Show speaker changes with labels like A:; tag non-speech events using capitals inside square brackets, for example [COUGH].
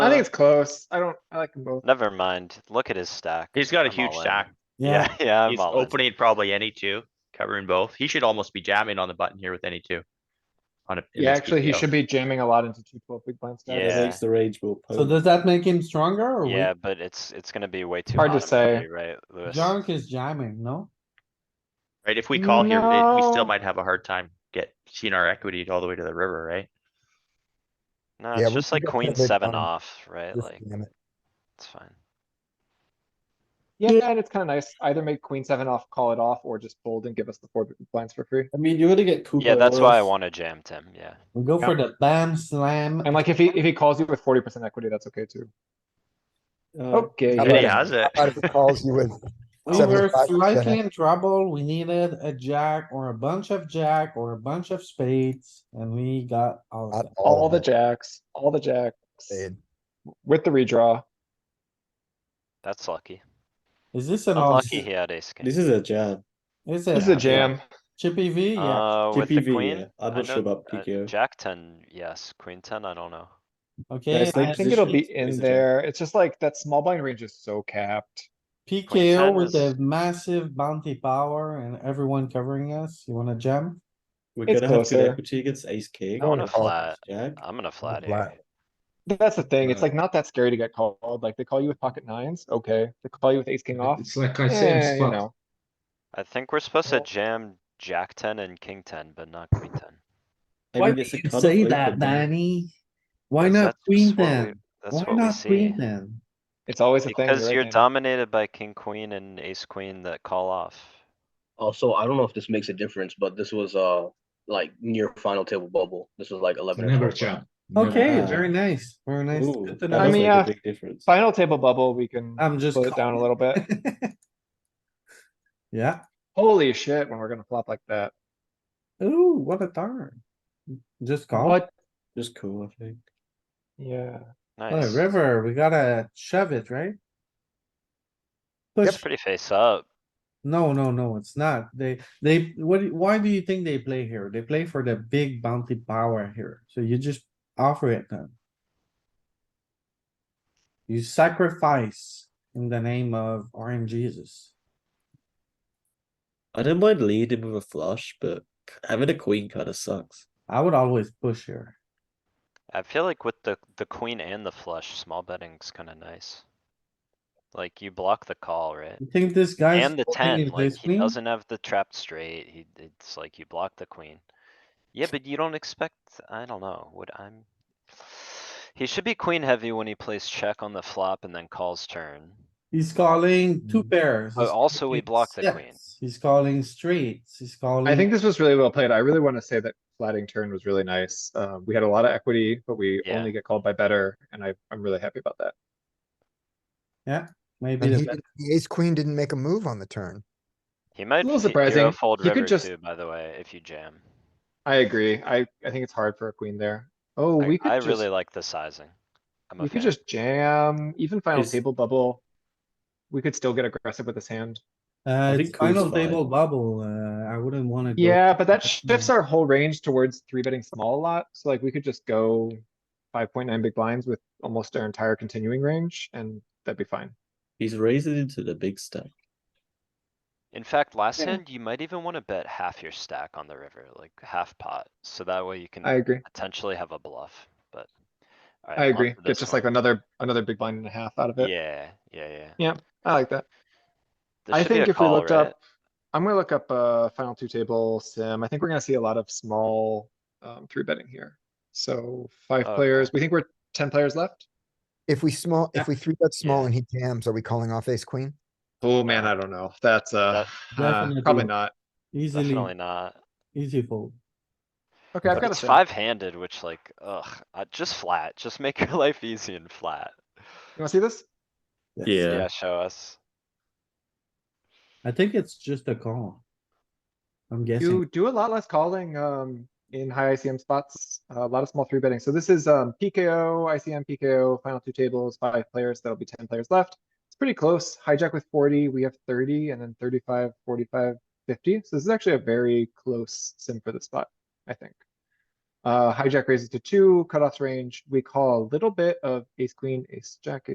A: I think it's close. I don't, I like them both.
B: Never mind. Look at his stack.
C: He's got a
B: I'm
C: huge
B: all in.
C: stack.
B: Yeah, [LAUGHS] yeah, I'm
C: He's
B: all in.
C: opening probably any two, covering both. He should almost be jamming on the button here with any two. On a.
A: Yeah, actually, he should be jamming a lot into two twelve big blind stacks.
B: Yeah.
D: Makes the rage will.
E: So does that make him stronger or
B: Yeah,
E: weak?
B: but it's, it's gonna be way too.
A: Hard to
B: bottom heavy,
A: say.
B: Right, Louis?
E: Junk is jamming, no?
C: Right, if we call here, we- we
A: No.
C: still might have a hard time get, seeing our equity all the way to the river, right?
B: No,
F: Yeah,
B: it's
F: we
B: just
F: can
B: like
F: get
B: queen
F: that big
B: seven
F: bottom.
B: off, right?
F: Just
B: Like,
F: jam it.
B: it's fine.
A: Yeah, and it's kinda nice. Either make queen seven off, call it off, or just fold and give us the four big blinds for free.
D: I mean, you already get Cooper.
B: Yeah, that's why I
D: Wurst.
B: wanna jam Tim, yeah.
E: We go for the bam slam.
A: And like, if he, if he calls you with forty percent equity, that's okay too.
D: Uh,
B: Oh,
A: Okay.
F: How
C: Yeah, he
F: about-
C: has it.
F: Out of the calls you with,
E: We were
F: 75%.
E: slightly in trouble. We needed a jack or a bunch of jack or a bunch of spades and we got all of
F: not
E: them.
A: All the
F: of it,
A: jacks, all the jacks,
F: dude.
A: with the redraw.
B: That's lucky.
E: Is this an all?
B: Unlucky he had ace king.
D: This is a jam.
E: Is
A: This is a
E: it
A: jam.
E: chippy V? Yeah,
B: Uh, with the
D: TPV, yeah.
B: queen?
D: I'm
B: I
D: not
B: know-
D: sure about
B: uh,
D: PKO.
B: Jack ten, yes, queen ten, I don't know.
E: okay.
D: it's like
A: I
E: and
A: think it'll
D: position,
A: be in
D: position.
A: there. It's just like that small blind range is so capped.
E: PKO with
B: tennis.
E: a massive bounty power and everyone covering us. You wanna jam?
D: We're
A: It's
D: gonna have good
A: closer.
D: equity against ace king.
B: I wanna
F: call
B: flat.
D: Jack.
B: I'm gonna flat here.
F: flat.
A: That's the thing. It's
G: Right.
A: like not that scary to get called. Like they call you with pocket nines, okay. They call you with ace king off.
G: It's like I
A: Yeah,
G: said,
A: you
G: spot.
A: know,
B: I think we're supposed to
A: Well-
B: jam jack ten and king ten, but not queen ten.
D: I mean, it's a
E: you
D: cut-off
E: say
D: rate
E: that,
D: for me.
E: Danny? Why
B: Because
E: not
B: that's
E: queen
B: what we-
E: then?
B: That's
E: Why
B: what we
E: not
B: see.
E: queen then?
A: it's always a thing.
B: Because
A: right,
B: you're
A: Andy?
B: dominated by king, queen and ace, queen that call off.
H: Also, I don't know if this makes a difference, but this was uh like near final table bubble. This was like eleven. or
G: Never
H: 12.
G: jam. Never
E: Okay,
G: jam.
E: very nice, very nice.
D: Ooh,
E: Good to
D: that
E: know.
A: I
D: was
A: mean, uh,
D: like
A: yeah.
D: a big difference.
A: Final table bubble, we can
E: I'm just.
A: slow it down a
E: calling.
A: little [LAUGHS] bit.
E: [LAUGHS] Yeah,
A: Holy shit, when we're gonna flop like that.
E: ooh, what a turn. Just call it.
A: What?
D: Just cool, I think.
A: Yeah,
E: What a
B: Nice.
E: river, we gotta shove it, right?
B: It's
E: Push,
B: pretty face up.
E: no, no, no, it's not. They, they, what, do- why do you think they play here? They play for the big bounty power here, so you just offer it then. You sacrifice in the name of RNG Jesus.
D: I don't mind leading with a flush, but having a queen kind of sucks.
E: I would always push here.
B: I feel like with the, the queen and the flush, small betting's kinda nice. Like you block the call, right?
E: You think this guy's.
B: And the
E: folding
B: ten,
E: is
B: like, he
E: listening?
B: doesn't have the trap straight, he, it's like you block the queen. Yeah, but you don't expect, I don't know, what I'm. He should be queen heavy when he plays check on the flop and then calls turn.
E: He's calling
A: Mm-hmm.
E: two pairs.
B: But
E: He's
B: also we
E: calling
B: block the queen.
E: sets. He's calling straights, he's calling.
A: I think this was really well played. I really wanna say that flatting turn was really nice. Uh, we had a lot of equity, but we
B: Yeah.
A: only get called by better, and I, I'm really happy about that.
E: Maybe
F: And
E: the
F: he-
E: bet-
F: The ace queen didn't make a move on the turn.
B: He might.
A: little
B: fe-
A: surprising.
B: Zero fold
A: You could
B: river
A: just-
B: too, by the way, if you jam.
A: I agree. I, I think it's hard for a queen there. Oh,
B: I,
A: we
B: I
A: could just,
B: really like the sizing. I'm a
A: we could
B: fan.
A: just jam, even final
D: Is-
A: table bubble. We could still get aggressive with this hand.
E: Uh,
D: think
E: it's final
D: queen's fine.
E: table bubble, uh, I wouldn't wanna. go-
A: Yeah, but that shifts
E: Yeah.
A: our whole range towards three betting small a lot, so like we could just go five point nine big blinds with almost our entire continuing range, and that'd be fine.
D: He's raising into the big stack.
B: In fact, last
A: Yeah.
B: hand, you might even wanna bet half your stack on the river, like half pot, so that way you can
A: I agree.
B: potentially have a bluff, but. Alright,
A: I
B: on
A: agree.
B: to
A: Get
B: this
A: just
B: one.
A: like another, another big blind and a half out of it.
B: Yeah, yeah, yeah.
A: I like that.
B: This
A: I
B: should be
A: think
B: a
A: if we
B: call,
A: looked
B: right?
A: up, I'm gonna look up uh final two table sim. I think we're gonna see a lot of small um three betting here. So five
B: Okay.
A: players, we think we're ten players left?
F: If we small,
E: Yeah.
F: if we three bet small
B: Yeah.
F: and he jams, are we calling off ace queen?
A: Oh, man, I don't know. That's uh, uh,
E: Definitely.
A: probably not.
B: Definitely
E: Easily,
B: not.
E: easy fold.
A: Okay, I've
B: But
A: got a
B: It's
A: sim.
B: five handed, which like, ugh, I- just flat, just make [LAUGHS] your life easy and flat.
A: You wanna see this?
E: Yes.
B: Yeah, show us.
E: I think it's just a call. I'm
A: You
E: guessing.
A: do a lot less calling, um, in high ICM spots, a lot of small three betting. So this is, um, PKO, ICM, PKO, final two tables, five players, that'll be ten players left. It's pretty close. Hijack with forty, we have thirty, and then 35, 45, 50. So this is actually a very close sim for the spot, I think. Uh, hijack raises to two, cutoff range, we call a little bit of ace, queen, ace, jack,